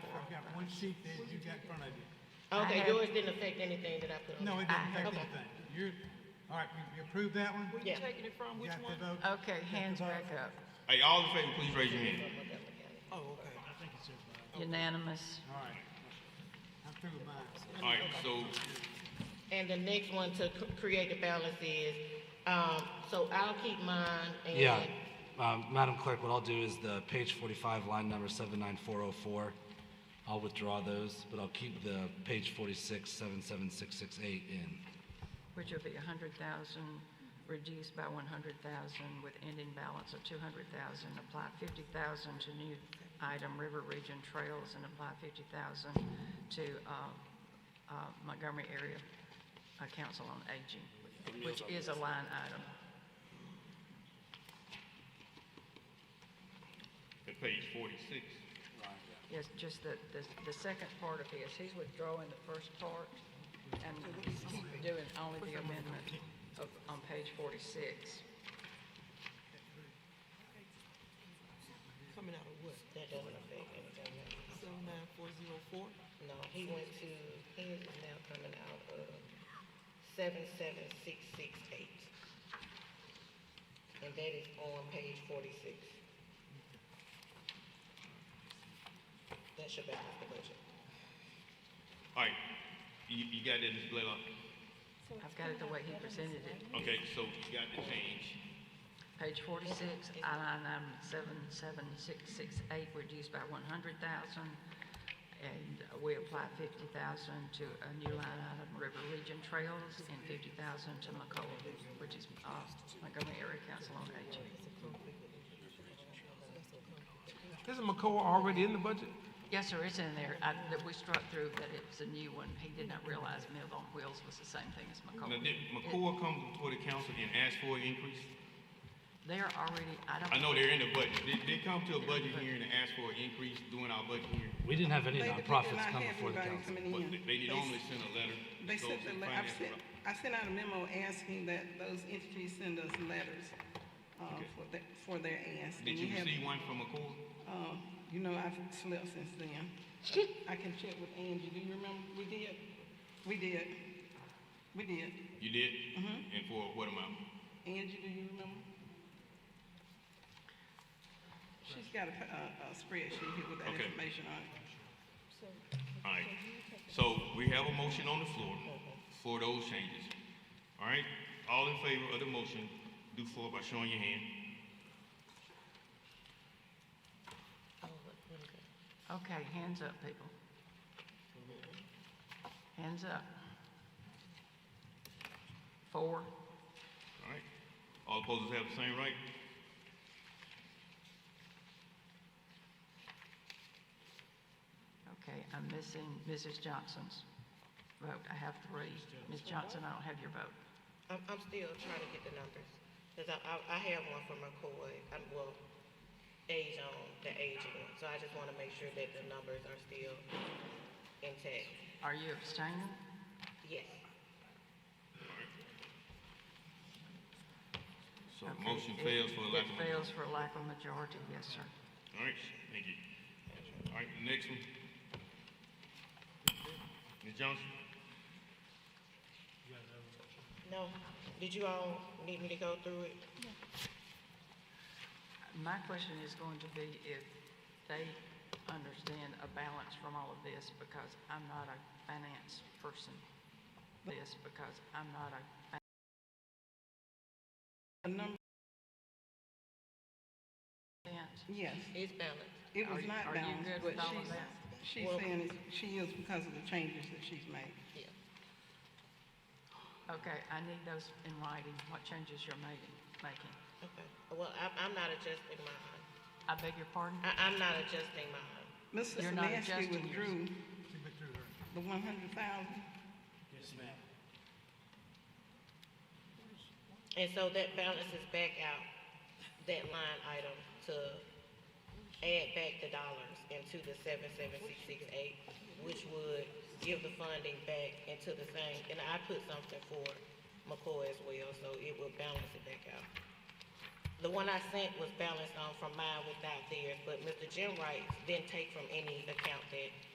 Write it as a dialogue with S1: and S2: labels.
S1: which sheet that you got in front of you.
S2: Okay,
S3: have-
S2: yours didn't affect anything that I put on.
S1: No, it
S2: there.
S1: doesn't affect
S2: Ah, Okay.
S1: anything. You're, all right, you- you approved that one?
S2: Yeah.
S4: taking it from, which
S1: Got
S4: one?
S1: the vote?
S3: Okay, hands back up.
S5: Hey, all in favor, please raise your hand.
S1: Oh, okay.
S3: Unanimous.
S1: All right. I'm through with mine.
S5: All right, so
S2: And the next one to c- create the balance is, um, so I'll keep mine and.
S6: Yeah, um, Madam Clerk, what I'll do is the page 45, line number 79404, I'll withdraw those, but I'll keep the page 46, 77668 in.
S3: which will be 100,000, reduced by 100,000 with ending balance of 200,000. Apply 50,000 to new item River Region Trails and apply 50,000 to uh, uh, Montgomery Area uh, Council on Aging, which is a line item.
S5: at page forty-six,
S3: Yes, just the, the, the second part of his, he's withdrawing the first part and doing only the amendment of, on page 46.
S4: Coming out of what?
S2: That doesn't affect anything. else.
S4: Seven nine four zero four?
S2: No, he went to, his is now coming out of seven seven six six eight. And that is on page forty-six. That should balance the budget.
S5: all right, you, you got that, Ms. Blaylock?
S3: I've got it the way he presented it.
S5: Okay, so you got the change,
S3: Page forty-six, line item seven, seven, six, six, eight, reduced by one hundred thousand. And we apply fifty thousand to a new line item, River Region Trails, and fifty thousand to McCollum, which is, uh, Montgomery Area Council on Aging.
S7: Isn't McCoy already in the budget?
S3: Yes, sir, it's in there. I, that we struck through that it's a new one. He did not realize Meals on Wheels was the same thing as
S5: now
S3: McCollum.
S5: did McCoy come before the council and ask for an increase?
S3: They are already, I don't.
S5: I know they're in the budget, did they come to a budget hearing and ask for an increase during our budget hearing?
S6: We didn't have any
S8: They- they did
S6: nonprofits
S8: not
S6: come
S8: have
S6: before the
S8: anybody
S6: council.
S8: coming
S5: But
S8: in.
S5: they- they
S8: They-
S5: normally sent a letter. to
S8: They
S5: those
S8: sent the,
S5: in
S8: le- I
S5: finance
S8: sent, I sent out a memo asking that those entities send us letters, uh, for their, for their ask.
S5: Did
S8: And
S5: you
S8: we have-
S5: receive one from McCoy?
S8: Um, you know, I've slept since then. I can check with Angie, do you remember, we did, we did, we did.
S5: You did?
S8: Mm-hmm.
S5: And for what amount?
S8: Angie, do you remember? She's got a, a a spreadsheet here with that
S5: Okay.
S8: information on it.
S5: All right, so we have a motion on the floor for those changes. All right, all in favor of the motion, do so by showing your hand.
S3: Okay, hands up, people. Hands up. Four,
S5: All right, all opposers have the same right.
S3: okay, I'm missing Mrs. Johnson's vote. I have three. Ms. Johnson, I don't have your vote.
S2: I'm, I'm still trying to get the numbers, because I, I, I have one for McCoy, I'm, well, age on, the aging one, so I just want to make sure that the numbers are still intact.
S3: Are you abstaining?
S2: Yes,
S5: So the
S3: Okay,
S5: motion
S3: it-
S5: fails for a lack of.
S3: It fails for lack of majority, yes, sir.
S5: All right, thank you. All right, next one. Ms. Johnson?
S2: no, did you all need me to go through it?
S3: My question is going to be if they understand a balance from all of this, because I'm not a finance person. This, because I'm not a
S8: The number,
S3: finance.
S8: yes,
S2: It's balanced.
S8: it
S3: Are
S8: was
S3: you-
S8: not
S3: are you
S8: balanced,
S3: good
S8: but
S3: with all of
S8: she's,
S3: that?
S8: she's
S2: Well-
S8: saying it's- she is because of the changes that she's made.
S2: Yeah.
S3: Okay, I need those in writing, what changes you're making, making.
S2: Okay, well, I, I'm not adjusting mine.
S3: I beg your pardon?
S2: I, I'm not adjusting mine.
S8: Mr.
S3: You're not
S8: Semansky
S3: adjusting yours.
S8: withdrew
S1: She withdrew her.
S8: the one hundred thousand.
S2: And so that balances back out that line item to add back the dollars into the seven seven six six eight, which would give the funding back into the same, and I put something for McCoy as well, so it would balance it back out. The one I sent was balanced on from mine without theirs, but Mr. Jim Wright didn't take from any account that